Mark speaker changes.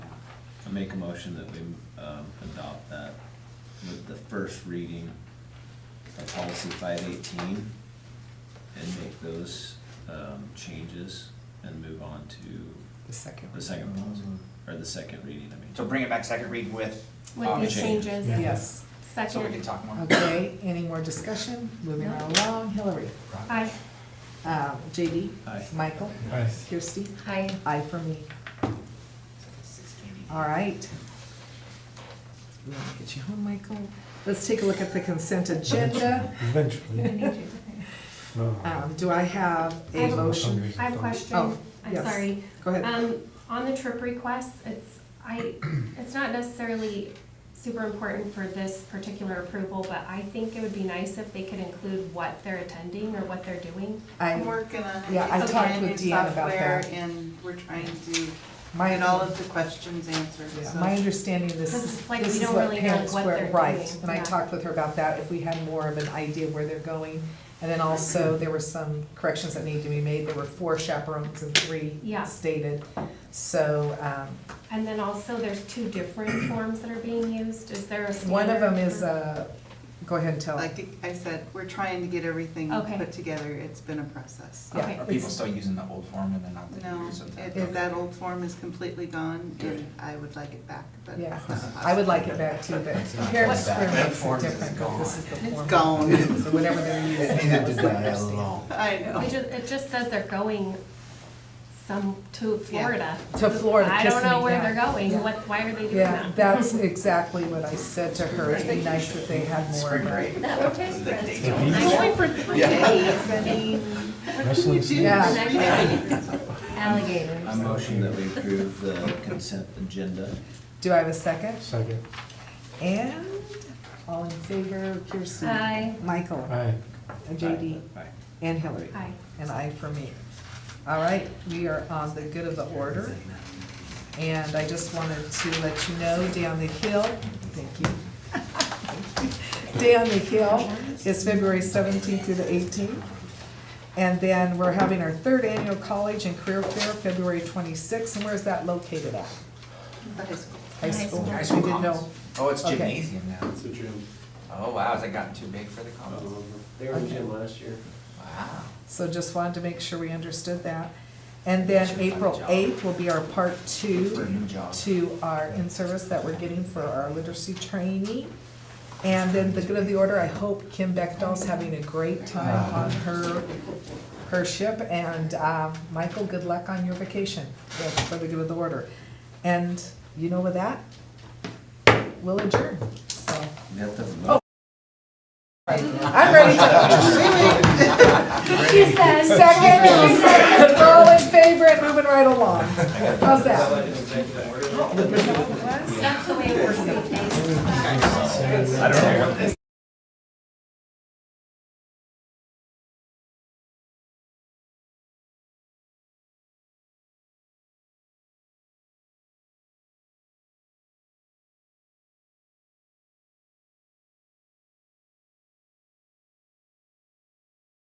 Speaker 1: I make a motion that we, um, adopt that with the first reading of policy five eighteen and make those, um, changes and move on to
Speaker 2: The second.
Speaker 1: the second policy, or the second reading, I mean.
Speaker 3: So bring it back second read with.
Speaker 4: With
Speaker 3: um,
Speaker 4: these
Speaker 1: change.
Speaker 4: changes.
Speaker 2: one. Yes,
Speaker 4: Second.
Speaker 3: So we can talk more.
Speaker 2: okay, any more discussion? Moving
Speaker 4: No.
Speaker 2: right along, Hillary.
Speaker 4: Aye.
Speaker 2: Um, JD?
Speaker 1: Aye.
Speaker 2: Michael?
Speaker 5: Aye.
Speaker 2: Kirsty?
Speaker 4: Aye.
Speaker 2: Aye for me. All right. We want to get you home, Michael. Let's take a look at the consent agenda.
Speaker 5: Eventually. No.
Speaker 2: Um, do I have
Speaker 4: I
Speaker 2: a
Speaker 4: have a-
Speaker 2: motion?
Speaker 4: I have a question.
Speaker 2: Oh,
Speaker 4: I'm
Speaker 2: yes.
Speaker 4: sorry.
Speaker 2: Go ahead.
Speaker 4: Um, on the trip requests, it's, I, it's not necessarily super important for this particular approval, but I think it would be nice if they could include what they're attending or what they're doing.
Speaker 6: I'm
Speaker 2: I,
Speaker 6: working on it.
Speaker 2: Yeah, I
Speaker 6: It's a
Speaker 2: talked
Speaker 6: brand
Speaker 2: with
Speaker 6: new
Speaker 2: Deanne about
Speaker 6: software,
Speaker 2: that.
Speaker 6: And we're trying to
Speaker 2: my,
Speaker 6: get all of the questions answered,
Speaker 2: yeah,
Speaker 6: so.
Speaker 2: my understanding, this
Speaker 4: Because
Speaker 2: is,
Speaker 4: it's like
Speaker 2: this
Speaker 4: we
Speaker 2: is
Speaker 4: don't
Speaker 2: what
Speaker 4: really know
Speaker 2: parents
Speaker 4: what
Speaker 2: were,
Speaker 4: they're
Speaker 2: right,
Speaker 4: doing,
Speaker 2: and I
Speaker 4: yeah.
Speaker 2: talked with her about that, if we had more of an idea where they're going. And then also, there were some corrections that needed to be made, there were four chaperones and three
Speaker 4: Yeah.
Speaker 2: stated. So, um,
Speaker 4: And then also, there's two different forms that are being used. Is there a standard?
Speaker 2: One of them is,
Speaker 4: for-
Speaker 2: uh, go ahead and tell.
Speaker 6: Like I said, we're trying to get everything
Speaker 4: Okay.
Speaker 6: put together, it's been a process.
Speaker 2: yeah,
Speaker 4: Okay.
Speaker 3: Are people still using the old form and then not the
Speaker 6: No,
Speaker 3: new? so that-
Speaker 6: it- it- that old form is completely gone,
Speaker 3: Good.
Speaker 6: and I would like it back, but
Speaker 2: Yeah,
Speaker 6: it's not
Speaker 2: I would
Speaker 6: possible.
Speaker 2: like it back too, but parents were makes it different, but this is the form.
Speaker 6: It's gone,
Speaker 2: So whatever they're using, that was their understanding.
Speaker 6: I know.
Speaker 4: It just, it just says they're going some, to Florida.
Speaker 2: To Florida,
Speaker 4: I
Speaker 2: kiss
Speaker 4: don't
Speaker 2: me,
Speaker 4: know where
Speaker 2: yeah.
Speaker 4: they're going.
Speaker 2: Yeah.
Speaker 4: What, why are they doing that?
Speaker 2: Yeah, that's exactly what I said to her, it'd be nice if they had more
Speaker 3: Spring
Speaker 2: of that.
Speaker 3: break.
Speaker 4: That would take
Speaker 3: The
Speaker 4: us.
Speaker 3: dates
Speaker 5: The
Speaker 3: are-
Speaker 5: beach?
Speaker 4: I'm going for three days, I mean,
Speaker 5: Wrestling scene?
Speaker 2: Yeah.
Speaker 1: I
Speaker 4: alligators.
Speaker 1: motion that we approve the consent agenda.
Speaker 2: Do I have a second?
Speaker 5: Second.
Speaker 2: And, all in favor, Kirsten?
Speaker 4: Aye.
Speaker 2: Michael?
Speaker 5: Aye.
Speaker 2: And JD?
Speaker 1: Aye.
Speaker 2: And Hillary?
Speaker 4: Aye.
Speaker 2: And I for me. All right, we are on the good of the order. And I just wanted to let you know, Day on the Hill, thank you. Day on the Hill is February seventeenth through the eighteenth. And then we're having our third annual college and career fair, February twenty-sixth, and where's that located at?
Speaker 6: The high school.
Speaker 2: High school?
Speaker 3: High
Speaker 2: I
Speaker 3: school
Speaker 2: didn't
Speaker 3: commons.
Speaker 2: know.
Speaker 3: Oh, it's
Speaker 2: Okay.
Speaker 3: gymnasium now.
Speaker 7: It's a gym.
Speaker 3: Oh, wow, has it gotten too big for the commons?
Speaker 7: They were in gym last year.
Speaker 3: Wow.
Speaker 2: So just wanted to make sure we understood that. And then April eighth will be our part two.
Speaker 3: For a new job.
Speaker 2: to our in-service that we're getting for our literacy trainee. And then the good of the order, I hope Kim Beckdahl's having a great time
Speaker 3: Uh-huh.
Speaker 2: on her, her ship. And, um, Michael, good luck on your vacation, That's for the good of the order. And you know with that, we'll adjourn, so.
Speaker 1: We have to vote.
Speaker 2: I'm ready to,
Speaker 4: She said.
Speaker 2: second, second, all in favor, and moving right along. How's that?
Speaker 4: That's the way it works these days.
Speaker 1: I don't know what this